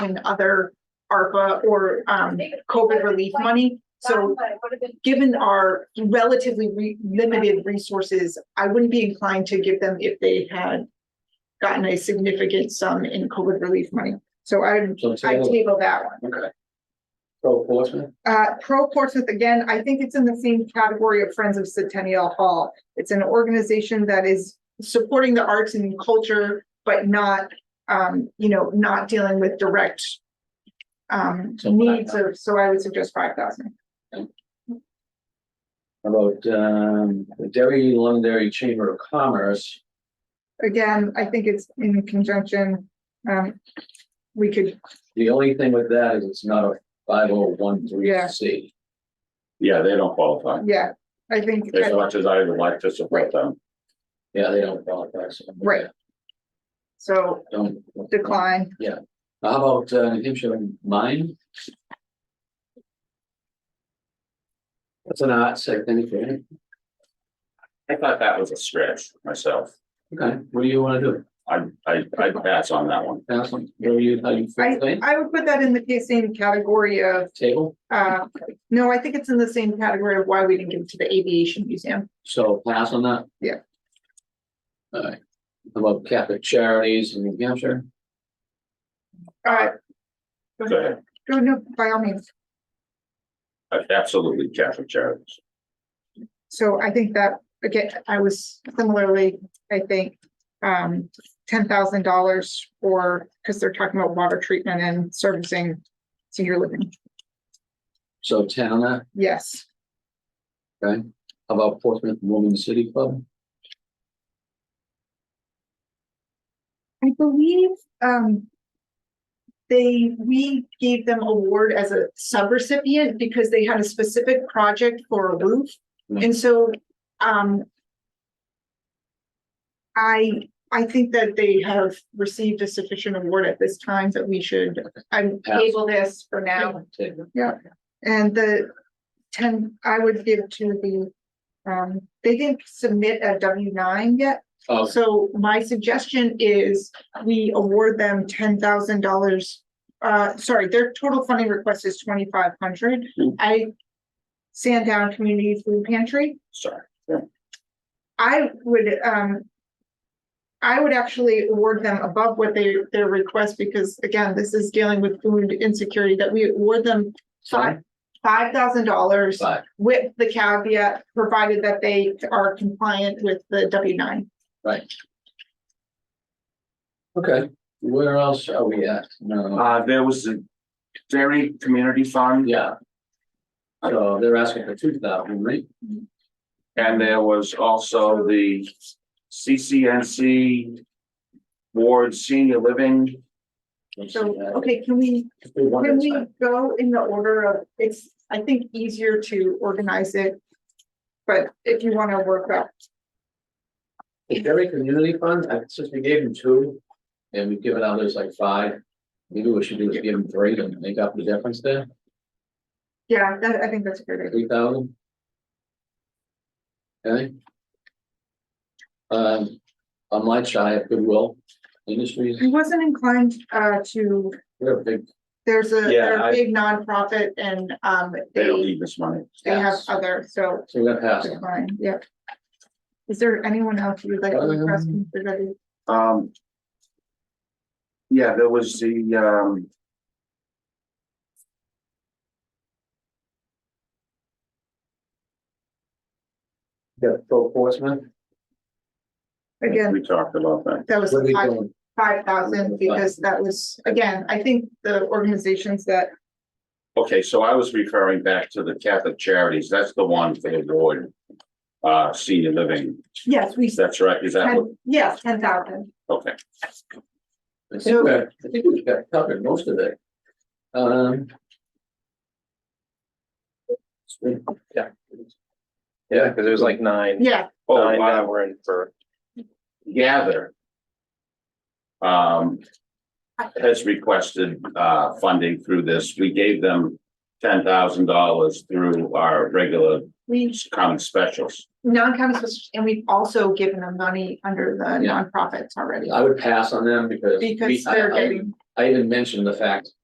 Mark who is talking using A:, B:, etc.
A: in other ARPA or um COVID relief money. So given our relatively re- limited resources, I wouldn't be inclined to give them if they had gotten a significant sum in COVID relief money. So I,
B: So it's
A: I
B: a-
A: table that one.
B: Okay. Pro Portsmouth,
A: Uh, Pro Portsmouth, again, I think it's in the same category of Friends of Centennial Hall. It's an organization that is supporting the arts and culture, but not, um, you know, not dealing with direct um,
B: So five
A: needs of, so I would suggest five thousand.
B: about um the Derry Londonderry Chamber of Commerce.
A: Again, I think it's in conjunction, um, we could,
B: The only thing with that is it's not a five oh one three
A: Yeah.
B: C.
C: Yeah, they don't qualify.
A: yeah, I think.
C: As much as I would like to support them.
B: Yeah, they don't qualify. so-
A: Right. So
B: Don't.
A: decline,
B: How about uh New Hampshire Mine? That's an odd second, okay,
C: I thought that was a stretch myself.
B: okay, what do you wanna do?
C: I, I, I pass on that one.
B: Allison, what do you, how you feel,
A: I,
B: Lane?
A: I would put that in the same category of
B: table,
A: Uh, no, I think it's in the same category of why we didn't give it to the aviation museum.
B: so pass on that?
A: Yeah.
B: Alright, how about Catholic Charities in New Hampshire?
A: Uh.
C: Go ahead.
A: No, no, by all means.
C: Absolutely Catholic charities.
A: So I think that, again, I was similarly, I think, um, ten thousand dollars for, because they're talking about water treatment and servicing senior living.
B: So ten on that,
A: Yes,
B: okay, how about Portsmouth Women's City Club?
A: I believe, um, they, we gave them award as a subrecipient because they had a specific project for a roof. And so, um, I, I think that they have received a sufficient award at this time that we should, I'm
B: Pass.
A: table this for now.
B: Table.
A: And the ten, I would give to the, um, they didn't submit a W nine yet.
B: Oh,
A: So my suggestion is we award them ten thousand dollars. Uh, sorry, their total funding request is twenty-five hundred.
C: Mm.
A: I, Sandown Community Food Pantry.
C: Sorry.
A: I would, um. I would actually award them above what they, their request, because again, this is dealing with food insecurity, that we award them
B: sorry,
A: five, five thousand dollars
B: five,
A: with the caveat, provided that they are compliant with the W nine.
B: okay, where else are we at? No,
C: Uh, there was a Dairy Community Fund
B: yeah. So they're asking for two thousand, right?
C: and there was also the CCNC Ward Senior Living.
B: Let's see uh,
A: So,
B: that.
A: okay, can we,
B: If we want
A: can
B: to-
A: we go in the order of, it's, I think, easier to organize it. But if you wanna work up,
B: The Berry Community Fund, I- since we gave them two, and we've given others like five, maybe what we should do is give them three and make up the difference there,
A: yeah, that, I think that's a good. idea.
B: three thousand. Okay. Um, on my side, Goodwill Industries,
A: I wasn't inclined, uh, to
B: we're a big,
A: There's a,
C: Yeah,
A: they're a
C: I-
A: big nonprofit and, um,
C: They don't
A: they,
C: need this money.
A: they have
B: Yes.
A: other, so.
B: so we're gonna pass them.
A: Fine, yeah. Is there anyone else you'd like to press?
B: Um,
C: Um. Yeah, there was the, um.
B: Yeah, Pro Portsmouth.
A: Again,
C: We talked about that.
A: that was
B: What are we
A: five,
B: doing?
A: five thousand because that was, again, I think the organizations that,
C: Okay, so I was referring back to the Catholic Charities. That's the one for the Lord. Uh, senior living.
A: yes, we said,
C: That's right. Is that what?
A: yes, ten thousand.
C: Okay.
B: I think we're- I think we've got covered most of it. Um.
D: Yeah, because it was like nine,
A: Yeah,
C: Oh,
D: nine that
C: wow.
D: were in for,
C: Gather. Um. Has requested, uh, funding through this. We gave them ten thousand dollars through our regular
A: we,
C: common specials.
A: non-council, and we've also given them money under the
B: Yeah.
A: nonprofits already.
B: I would pass on them because. we-
A: Because
B: I-
A: they're
B: I-
A: getting,
B: I I even mentioned the fact